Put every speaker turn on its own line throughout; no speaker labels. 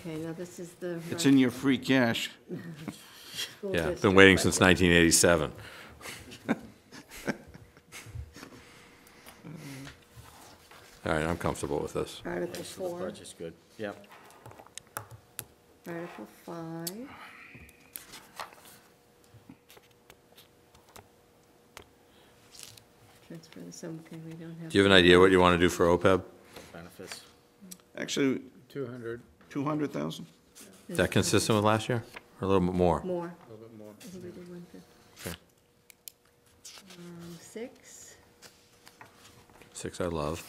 Okay, now this is the.
It's in your free cash.
school
Yeah,
district
been waiting
budget.
since 1987. All right, I'm comfortable with this.
Article
So the
four,
budget's good, yep.
article five. Transfer this, okay, we don't have.
Do you have an idea what you want to do for E OPEB?
Benefits,
Actually,
200,
200,000?
Is that consistent with last year, or a little bit more?
More.
a little bit more.
I think we did one fifty.
Okay.
Um, six,
Six I love.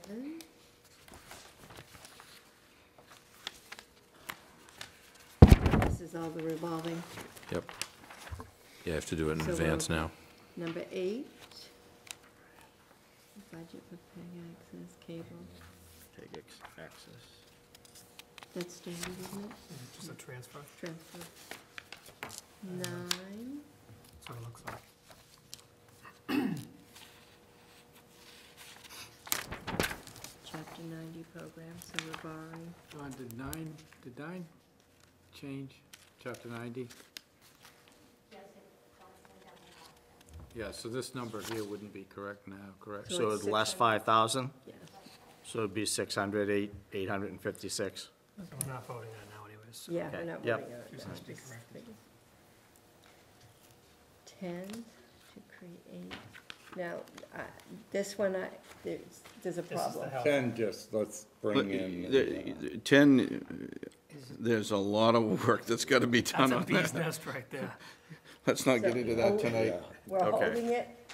seven. This is all the revolving.
Yep. Yeah, I have to do it in
So
advance
we'll-
now.
Number eight, budget for paying access cable.
take ex- access.
That's standard, isn't it?
Just a transfer,
Transfer. Nine,
that's what it looks like.
chapter ninety program, so we're borrowing.
John, did nine, did nine change, chapter 90? Yeah, so this number here wouldn't be correct now, correct?
So
So
it's
it's less
600.
five thousand,
Yeah.
so it'd be six hundred, eight, eight hundred and fifty-six.
So we're not voting on it now anyways. so-
Yeah, we're
Okay,
not
yep.
voting on it.
Just
now,
has to be
just
corrected.
thinking. Ten, to create, now, I- this one, I, there's, there's a
This is the
problem.
help.
10, just let's
But,
bring in.
uh, 10, uh, there's a lot of work that's got to be done
That's a
on
bee's
that.
nest right there.
Let's not get into that tonight.
oh, We're
Okay.
holding it,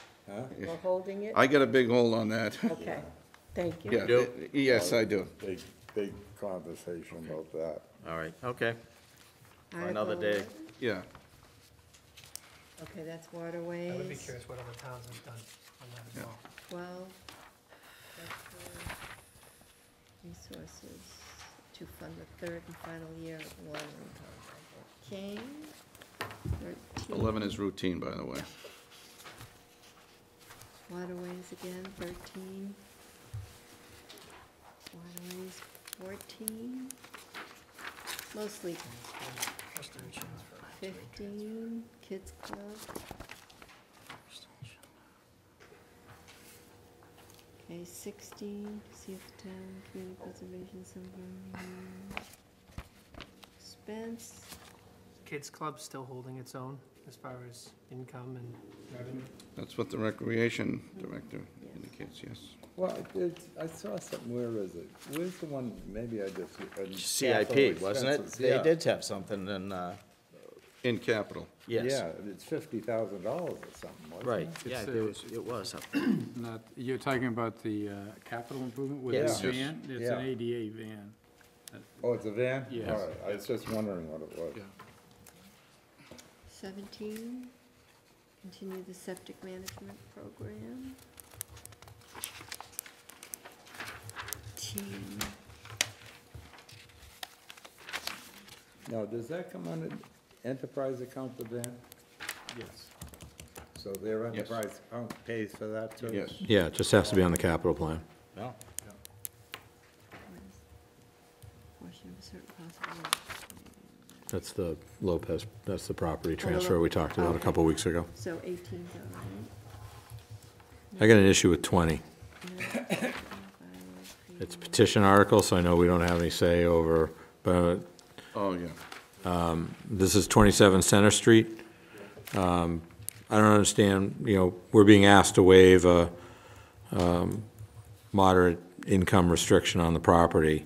we're holding it,
I got a big hole on that.
okay, thank you.
Yeah,
do?
yes, I do.
Big, big conversation about that.
All right, okay, another
Article
day.
one.
Yeah.
Okay, that's
I would be
waterways,
curious what other towns have done on that as well.
twelve. Cultural Resources to fund the third and final year of Long King, thirteen.
11 is routine, by the way.
Waterways again, thirteen. Waterways, fourteen. Mostly
Just a transfer.
fifteen, kids club. Okay, sixteen, see if town, community preservation, somewhere. Spence,
Kids Club's still holding its own as far as income and revenue.
That's what the recreation director indicates, yes.
Well, it- it's, I saw something, where is it? Where's the one, maybe I just. uh,
CIP, wasn't it?
expenses,
They
yeah.
did have something in, uh,
In capital.
yes,
Yeah, it's fifty thousand dollars or something, wasn't it?
right, yeah,
It's,
there
uh,
was, it was up there.
Not, you're talking about the uh, capital improvement with
Yes.
the
Yes.
van? It's an
Yeah.
ADA van.
Oh, it's a van?
Yes.
All right, I was just wondering what it was.
Yeah.
seventeen, continue the septic management program. Eighteen.
Now, does that come under enterprise account, the van?
Yes.
So their
Yes.
enterprise account pays for that too?
Yes.
Yeah, it just has to be on the capital plan.
No,
Portion of a certain possible.
That's the Lopez, that's the property
Oh, the Lo-
transfer we talked about a
okay.
couple weeks ago.
So eighteen's all right.
I got an issue with 20. It's a petition article, so I know we don't have any say over, but
Oh, yeah.
this is 27 Center Street. Um, I don't understand, you know, we're being asked to waive a um, moderate income restriction on the property.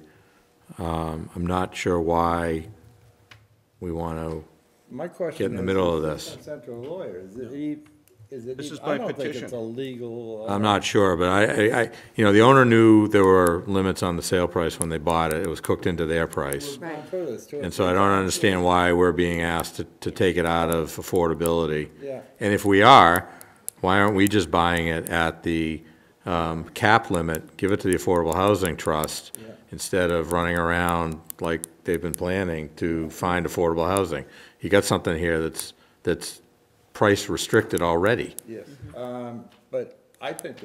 Um, I'm not sure why we want to,
My question is.
Get in the middle of
is
this.
the Central lawyer, is it, e- is it?
This
e-
is by
I don't think
petition.
it's a legal. uh,
I'm not sure, but I, I- I, you know, the owner knew there were limits on the sale price when they bought it. It was cooked into their price.
Right.
For this, too.
And so I don't understand why we're being asked to, to take it out of affordability.
Yeah.
And if we are, why aren't we just buying it at the um, cap limit, give it to the Affordable Housing Trust,
Yeah.
instead of running around like they've been planning to find affordable housing? You got something here that's, that's price restricted already.
Yes, um, but I think